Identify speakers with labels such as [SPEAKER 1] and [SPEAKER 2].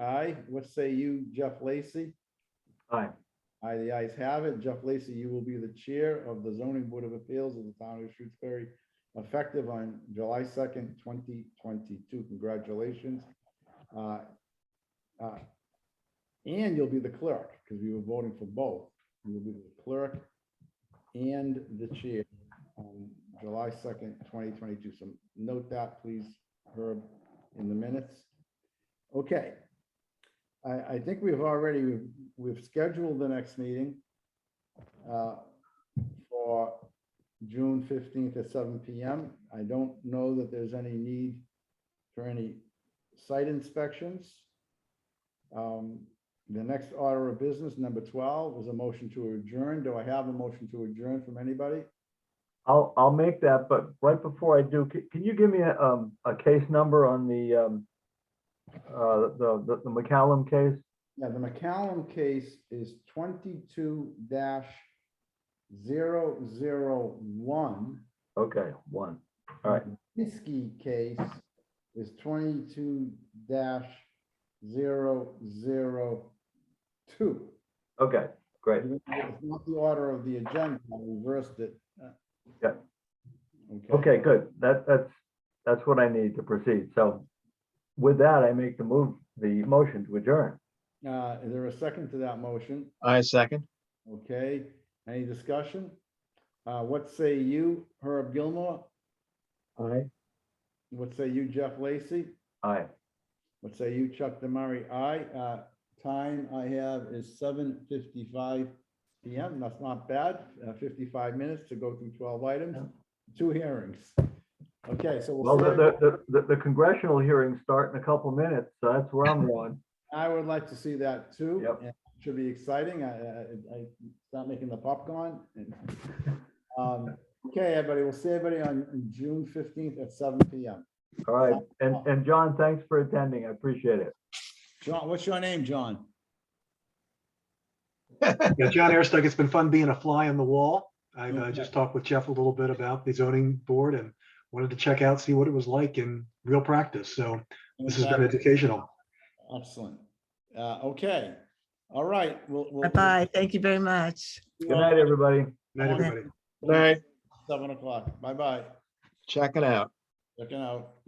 [SPEAKER 1] aye. What say you, Jeff Lacy?
[SPEAKER 2] Aye.
[SPEAKER 1] Aye, the ayes have it. Jeff Lacy, you will be the chair of the zoning board of appeals of the town of Shrewsbury, effective on July second, twenty twenty-two. Congratulations. Uh, uh, And you'll be the clerk, because we were voting for both. You will be the clerk and the chair on July second, twenty twenty-two. So note that, please, Herb, in the minutes. Okay. I, I think we've already, we've- we've scheduled the next meeting uh, for June fifteenth at seven PM. I don't know that there's any need for any site inspections. Um, The next order of business, number twelve, is a motion to adjourn. Do I have a motion to adjourn from anybody?
[SPEAKER 2] I'll, I'll make that, but right before I do, can, can you give me a, um, a case number on the, um, uh, the, the- the McCallum case?
[SPEAKER 1] Yeah, the McCallum case is twenty-two 1
[SPEAKER 2] Okay, one. All right.
[SPEAKER 1] Minsky case is twenty-two 2
[SPEAKER 2] Okay, great.
[SPEAKER 1] It's not the order of the agenda, I reversed it.
[SPEAKER 2] Yeah.
[SPEAKER 1] Okay,
[SPEAKER 2] Okay, good. That, that's, that's what I need to proceed. So with that, I make the move, the motion to adjourn.
[SPEAKER 1] uh, is there a second to that motion?
[SPEAKER 3] I second.
[SPEAKER 1] Okay, any discussion? Uh, what say you, Herb Gilmore?
[SPEAKER 2] Aye.
[SPEAKER 1] What say you, Jeff Lacy?
[SPEAKER 2] Aye.
[SPEAKER 1] What say you, Chuck Damari? Aye. Uh, Time I have is seven fifty-five PM. That's not bad. Uh, Fifty-five minutes to go through twelve items, two hearings. Okay, so
[SPEAKER 2] Well,
[SPEAKER 1] we'll
[SPEAKER 2] the,
[SPEAKER 1] save-
[SPEAKER 2] the- the, the congressional hearings start in a couple minutes, so that's where I'm going.
[SPEAKER 1] I would like to see that too.
[SPEAKER 2] Yep.
[SPEAKER 1] and it Should be exciting. I, I, I start making the popcorn. and- Um, Okay, everybody, we'll see everybody on June fifteenth at seven PM.
[SPEAKER 2] All right. And, and John, thanks for attending. I appreciate it.
[SPEAKER 1] John, what's your name, John?
[SPEAKER 4] Yeah, John Aristuck, it's been fun being a fly on the wall. I've uh, just talked with Jeff a little bit about the zoning board and wanted to check out, see what it was like in real practice. So this has been educational.
[SPEAKER 1] Uh, Excellent. Uh, okay, all right, we'll. we'll-
[SPEAKER 5] Bye-bye. Thank you very much.
[SPEAKER 2] Good night, everybody.
[SPEAKER 4] Good Night, everybody.
[SPEAKER 3] All right,
[SPEAKER 1] Seven o'clock. Bye-bye.
[SPEAKER 3] check it out.
[SPEAKER 1] Looking out.